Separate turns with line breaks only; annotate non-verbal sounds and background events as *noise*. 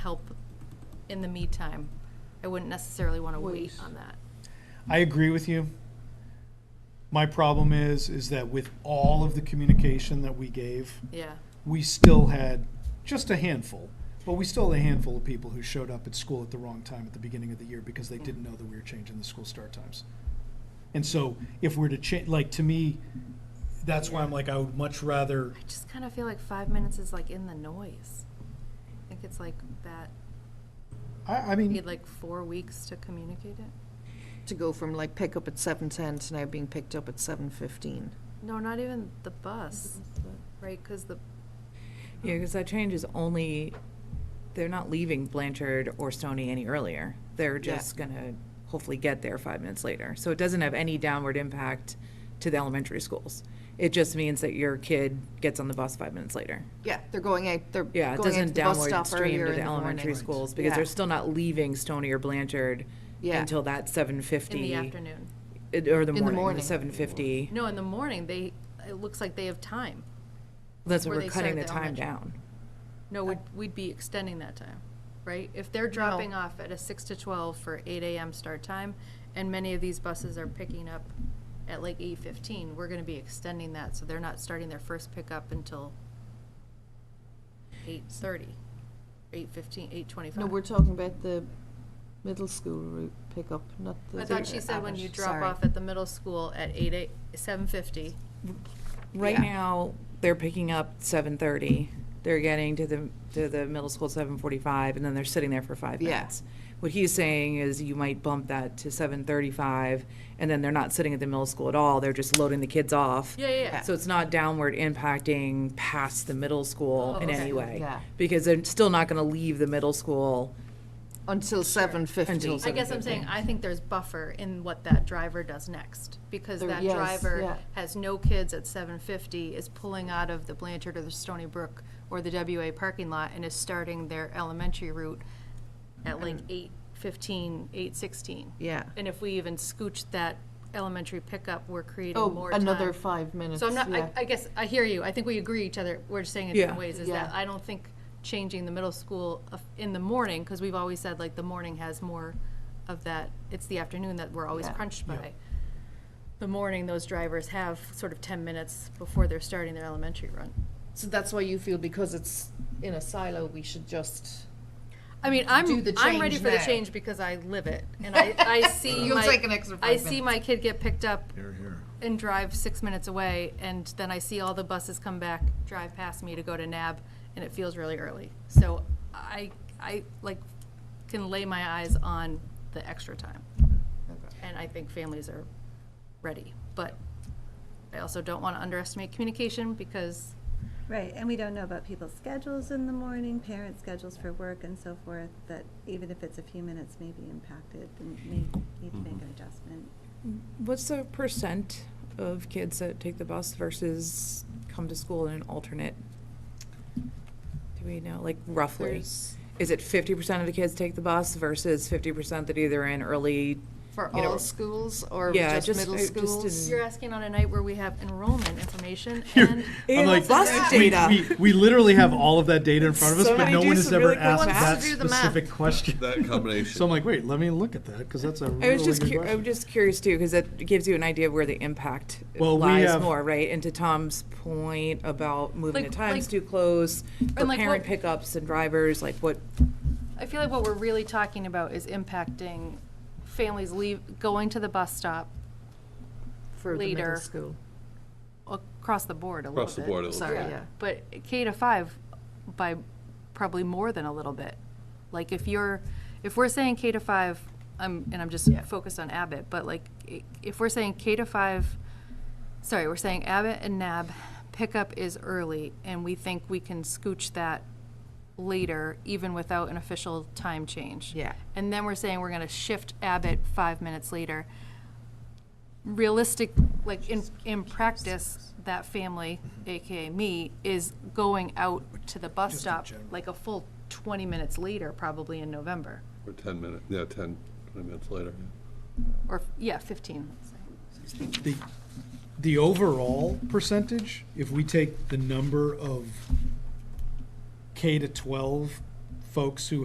help in the meantime. I wouldn't necessarily want to wait on that.
I agree with you. My problem is, is that with all of the communication that we gave,
Yeah,
we still had just a handful, but we still had a handful of people who showed up at school at the wrong time at the beginning of the year because they didn't know that we were changing the school start times. And so if we're to change, like, to me, that's why I'm like, I would much rather,
I just kind of feel like five minutes is like in the noise. I think it's like that,
I, I
you
mean.
need like four weeks to communicate it.
to go from like pickup at seven ten to now being picked up at seven fifteen.
No, not even the bus, right? Because the,
Yeah, because that change is only, they're not leaving Blanchard or Stony any earlier. They're
Yeah.
just gonna hopefully get there five minutes later. So it doesn't have any downward impact to the elementary schools. It just means that your kid gets on the bus five minutes later.
Yeah, they're going out, they're
Yeah, it
going into
doesn't
the bus
downward
stop
stream
earlier
to
in
the
the
elementary
morning.
schools because
Yeah.
they're still not leaving Stony or Blanchard
Yeah.
until that seven fifty.
in the afternoon.
Or the
the
morning,
morning.
the seven fifty.
No, in the morning, they, it looks like they have time.
That's what
where
we're
they
cutting the
start the
time
elementary.
down.
No, we'd, we'd be extending that time, right? If they're dropping off at a six to twelve for eight AM start time, and many of these buses are picking up at like eight fifteen, we're gonna be extending that, so they're not starting their first pickup until eight thirty, eight fifteen, eight twenty-five.
No, we're talking about the middle school route pickup, not the.
I thought she said when you drop
Sorry.
off at the middle school at eight, eight, seven fifty,
Right
Yeah.
now, they're picking up seven thirty. They're getting to the to the middle school seven forty five, and then they're sitting there for five
Yeah.
minutes. What he's saying is you might bump that to seven thirty five, and then they're not sitting at the middle school at all. They're just loading the kids off.
yeah, yeah, yeah,
Yeah.
So it's not downward impacting past the middle school
Oh,
in
okay.
any way,
Yeah.
because they're still not going to leave the middle school.
Until seven
Until
fifty.
I guess I'm saying, I think there's buffer in what that driver does next, because
There-
that
yes,
driver
yeah.
has no kids at seven fifty, is pulling out of the Blanchard or the Stony Brook or the WA parking lot and is starting their elementary route at like eight fifteen, eight sixteen.
Yeah.
And if we even scooch that elementary pickup, we're creating
Oh,
more time.
another five minutes,
So I'm not,
yeah.
I, I guess, I hear you, I think we agree each other, we're just saying it different
Yeah.
ways, is
Yeah.
that I don't think changing the middle school of- in the morning, because we've always said like the morning has more of that, it's the afternoon that we're always
Yeah.
crunched by. The morning, those drivers have sort of ten minutes before they're starting their elementary run.
So that's why you feel because it's in a silo, we should just.
I mean,
Do
I'm,
the
I'm ready
change
for the
now.
change because I live it, and
*laughs*
I, I see
You'll
my-
take an extra
I
five
see my kid get picked up and drive six minutes away, and then I see all the buses come back, drive past me to go to NAB, and it feels really early. So I, I like, can lay my eyes on the extra time. And I think families are ready, but I also don't want to underestimate communication, because
Right, and we don't know about people's schedules in the morning, parents' schedules for work and so forth, that even if it's a few minutes may be impacted and may need to make an adjustment.
What's the percent of kids that take the bus versus come to school in an alternate? Do we know, like roughly?
There's-
Is it fifty percent of the kids take the bus versus fifty percent that either in early?
For
you know,
all schools or
Yeah,
just
just-
middle
uh, just in-
schools?
you're asking on a night where we have enrollment information and.
I'm like,
bus
we,
data.
we, we literally have all of that
*laughs*
data in front of us, but
Somebody
no
do
one has
some
ever
really quick
asked
math.
that
Wants to do the math.
specific question.
That
So I'm
combination.
like, wait, let me look at that, because that's a
I
really
was
good
just, cur- I
question.
was just curious too, because that gives you an idea of where the impact
Well, we
lies
have-
more, right? And to Tom's point about moving the
Like-
times
like-
too close, for
and like
parent
what-
pickups and drivers, like what,
I feel like what we're really talking about is impacting families leave, going to the bus stop
For the
Later.
middle school.
across the board a little bit.
Across the board a little
Sorry,
bit. Yeah.
But K to five by probably more than a little bit. Like if you're, if we're saying K to five, I'm, and I'm just focused on Abbott, but like, i- if we're saying K to five, sorry, we're saying Abbott and NAB pickup is early, and we think we can scooch that later, even without an official time change.
Yeah.
And then we're saying we're gonna shift Abbott five minutes later. Realistic, like, in, in practice, that family, AKA me, is going out to the bus stop like a full twenty minutes later, probably in November,
Or 10 minutes, yeah, 10, 20 minutes later. yeah.
or, yeah, fifteen. let's say.
The, the overall percentage, if we take the number of K to twelve folks who